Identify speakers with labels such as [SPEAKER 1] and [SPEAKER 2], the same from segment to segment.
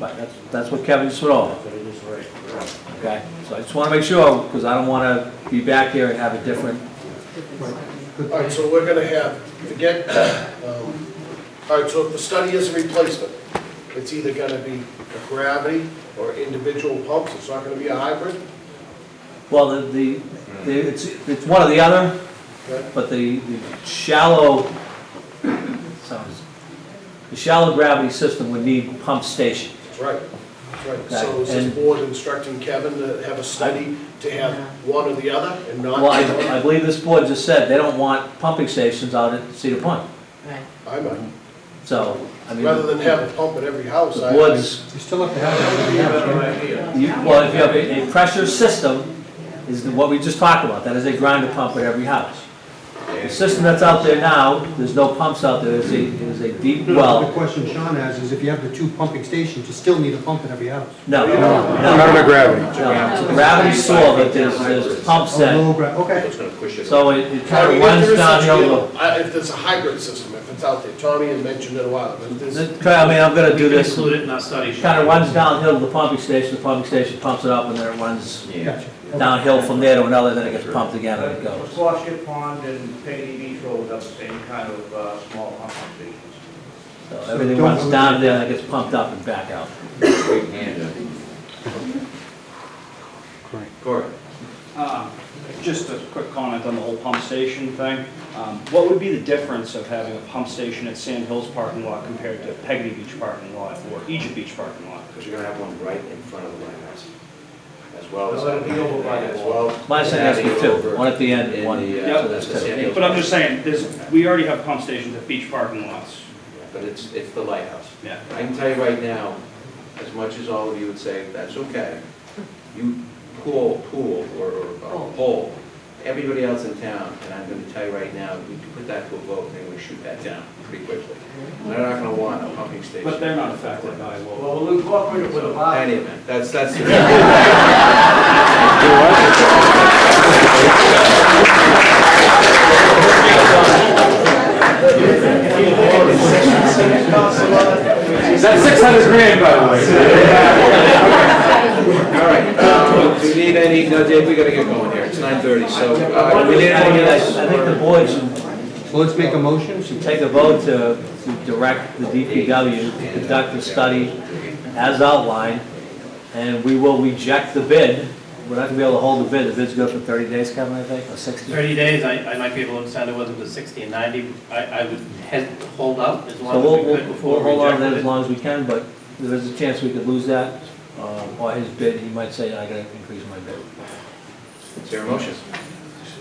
[SPEAKER 1] But that's, that's what Kevin's throwing,
[SPEAKER 2] But it is right.
[SPEAKER 1] okay? So I just wanna make sure, because I don't wanna be back here and have a different,
[SPEAKER 3] All right, so we're gonna have, forget, um, all right, so if the study is a replacement, it's either gonna be a gravity or individual pumps, it's not gonna be a hybrid,
[SPEAKER 1] well, the, the, the- it's, it's one or the other,
[SPEAKER 3] okay?
[SPEAKER 1] but the, the shallow, sounds, the shallow gravity system would need pump station.
[SPEAKER 3] That's right, that's right. So is this
[SPEAKER 1] And-
[SPEAKER 3] board instructing Kevin to have a study to have one or the other and not?
[SPEAKER 1] Well, I, I believe this board just said they don't want pumping stations out at Cedar Point,
[SPEAKER 4] Right.
[SPEAKER 3] I might,
[SPEAKER 1] so, I mean.
[SPEAKER 3] rather than have a pump at every house.
[SPEAKER 1] The
[SPEAKER 3] I-
[SPEAKER 1] board's
[SPEAKER 5] You still have to have it.
[SPEAKER 2] Better idea.
[SPEAKER 1] You- Well, if you have a a pressure system, is what we just talked about, that is a grinder pump at every house. The system that's out there now, there's no pumps out there, it's a, it is a deep
[SPEAKER 5] The
[SPEAKER 1] well.
[SPEAKER 5] question Sean has is if you have the two pumping stations, you still need a pump at every house.
[SPEAKER 1] No, no, no,
[SPEAKER 6] gravity.
[SPEAKER 1] it's a gravity saw, but there's, there's pumps
[SPEAKER 5] Oh,
[SPEAKER 1] that,
[SPEAKER 5] gra- Okay.
[SPEAKER 2] It's gonna push it.
[SPEAKER 1] so it it
[SPEAKER 3] Now,
[SPEAKER 1] kind of
[SPEAKER 3] if
[SPEAKER 1] runs
[SPEAKER 3] there is
[SPEAKER 1] down
[SPEAKER 3] such
[SPEAKER 1] the
[SPEAKER 3] a deal,
[SPEAKER 1] other.
[SPEAKER 3] I- If there's a hybrid system, if it's out there, Tommy had mentioned it a while, but if there's,
[SPEAKER 1] This- I mean, I'm gonna do this,
[SPEAKER 2] Include it in our study.
[SPEAKER 1] kind of runs downhill to the pumping station, the pumping station pumps it up, and then it runs
[SPEAKER 5] Gotcha.
[SPEAKER 1] downhill from there to another, then it gets pumped again, and it goes.
[SPEAKER 2] Squashit Uh, Pond and Peggy Beach Road have the same kind of uh, small pumping stations.
[SPEAKER 1] So everything runs down there, and it gets pumped up and back out.
[SPEAKER 2] Correct.
[SPEAKER 7] Uh, Just a quick comment on the whole pump station thing. Um, What would be the difference of having a pump station at Sand Hills parking lot compared to Peggy Beach parking lot or Egypt Beach parking lot?
[SPEAKER 6] Because you're gonna have one right in front of the lighthouse, as well as.
[SPEAKER 2] Well, that'd be over by the
[SPEAKER 6] As well.
[SPEAKER 1] My son asked me too, one at the end, and one,
[SPEAKER 6] In the, uh,
[SPEAKER 1] so that's
[SPEAKER 6] the San
[SPEAKER 1] two.
[SPEAKER 6] Diego-
[SPEAKER 7] But I'm just saying, there's, we already have pump stations at beach parking lots.
[SPEAKER 6] But it's, it's the lighthouse.
[SPEAKER 7] Yeah.
[SPEAKER 6] I can tell you right now, as much as all of you would say, that's okay, you pull, pool, or, or poll, everybody else in town, and I'm gonna tell you right now, we could put that to a vote, and we shoot that down pretty quickly. They're not gonna want a pumping station.
[SPEAKER 7] But they're not affected by what,
[SPEAKER 2] Well, we'll incorporate it with a lot.
[SPEAKER 6] Any event, that's, that's.
[SPEAKER 2] That's six hundred grand, by the
[SPEAKER 6] All right, um, do we need any, no, Dave, we gotta get going here, it's nine thirty, so, uh, we need
[SPEAKER 1] I
[SPEAKER 6] anyone
[SPEAKER 1] mean, I
[SPEAKER 6] else?
[SPEAKER 1] I think the board should
[SPEAKER 5] So let's make a motion.
[SPEAKER 1] take a vote to to direct the DPW to conduct the study as outlined, and we will reject the bid. We're not gonna be able to hold the bid, the bid's good for 30 days, Kevin, I think, or 60.
[SPEAKER 8] 30 days, I, I might be able to send it whether it was 60 and 90. I, I would head, hold up as
[SPEAKER 1] So
[SPEAKER 8] long
[SPEAKER 1] we'll,
[SPEAKER 8] as we
[SPEAKER 1] we'll
[SPEAKER 8] could
[SPEAKER 1] we'll
[SPEAKER 8] before we
[SPEAKER 1] hold on to that as
[SPEAKER 8] rejected it.
[SPEAKER 1] long as we can, but there is a chance we could lose that, um, or his bid, he might say, I gotta increase my bid.
[SPEAKER 6] Is there a motion?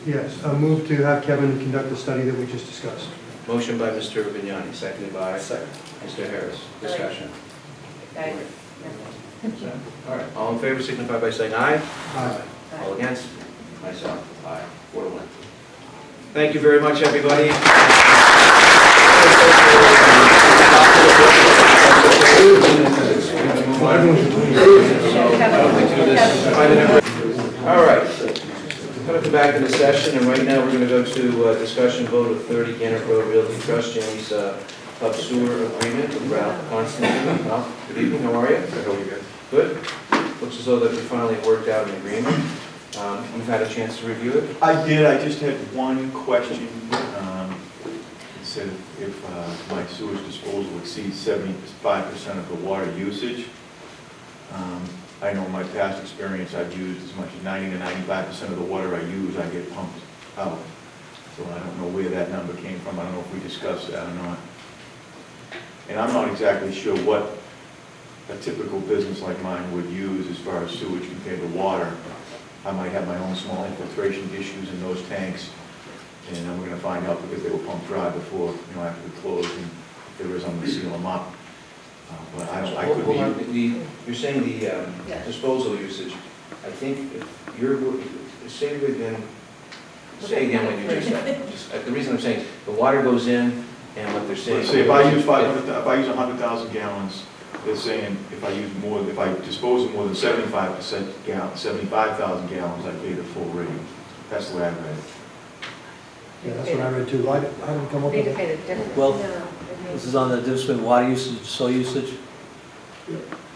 [SPEAKER 5] Yes, a move to have Kevin conduct the study that we just discussed.
[SPEAKER 6] Motion by Mr. Vignani, seconded by
[SPEAKER 2] Second.
[SPEAKER 6] Mr. Harris, discussion.
[SPEAKER 4] Okay.
[SPEAKER 6] All right, all in favor signify by saying aye.
[SPEAKER 5] Aye.
[SPEAKER 6] All against? Myself, aye, four to one. Thank you very much, everybody. All right, I'm going to come back into session, and right now, we're going to go to uh, discussion vote of 30 Gannett Road Realty Trust, Jamie's uh, Hub Sewer Agreement with Ralph Constantine. Ralph, good evening, how are you? Good, how are you guys? Good. Looks as though that we finally worked out an agreement. Um, We've had a chance to review it.
[SPEAKER 9] I did, I just had one question. um, It said if uh, my sewage disposal exceeds seventy-five percent of the water usage. Um, I know in my past experience, I've used as much as ninety to ninety-five percent of the water I use, I get pumped out. So I don't know where that number came from, I don't know if we discussed that or not. And I'm not exactly sure what a typical business like mine would use as far as sewage compared to water. I might have my own small infiltration issues in those tanks, and I'm gonna find out because they were pumped dry before, you know, after we closed, and if there is, I'm gonna seal them up. Uh, But I don't, I could
[SPEAKER 6] Hold
[SPEAKER 9] be.
[SPEAKER 6] on, the- You're saying the um,
[SPEAKER 4] Yeah.
[SPEAKER 6] disposal usage. I think if you're, say it again, say again what you just said. Just, uh, The reason I'm saying, is the water goes in, and what they're saying.
[SPEAKER 9] Let's say if I use five hundred, if I use hundred thousand gallons, they're saying if I use more, if I dispose of more than seventy-five percent gallon, seventy-five thousand gallons, I pay the full rate. That's the way I read it.
[SPEAKER 5] Yeah, that's what I read too. I didn't I didn't come up
[SPEAKER 4] Need
[SPEAKER 5] with
[SPEAKER 4] to
[SPEAKER 5] it.
[SPEAKER 4] pay the difference.
[SPEAKER 1] Well,
[SPEAKER 4] No, it
[SPEAKER 1] This is
[SPEAKER 4] means-
[SPEAKER 1] on the difference between water usage, soil usage?